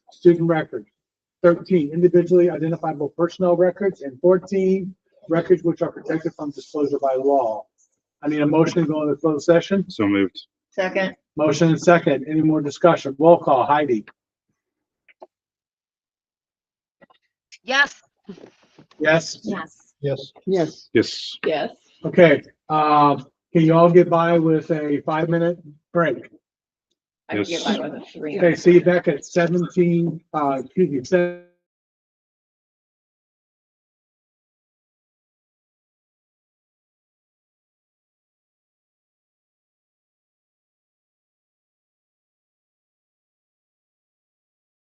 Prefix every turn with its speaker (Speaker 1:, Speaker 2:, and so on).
Speaker 1: student records. Thirteen, individually identifiable personnel records, and fourteen, records which are protected from disclosure by law. I need a motion to go into closed session.
Speaker 2: So moved.
Speaker 3: Second,
Speaker 1: Motion and second. Any more discussion? Roll call. Heidi.
Speaker 4: Yes.
Speaker 1: Yes?
Speaker 4: Yes.
Speaker 1: Yes.
Speaker 5: Yes.
Speaker 2: Yes.
Speaker 3: yes.
Speaker 1: Okay, um, can you all get by with a five-minute break?
Speaker 3: I could
Speaker 2: Yes.
Speaker 3: get by with a three.
Speaker 1: Okay, see you back at seventeen, uh, excuse me, seven.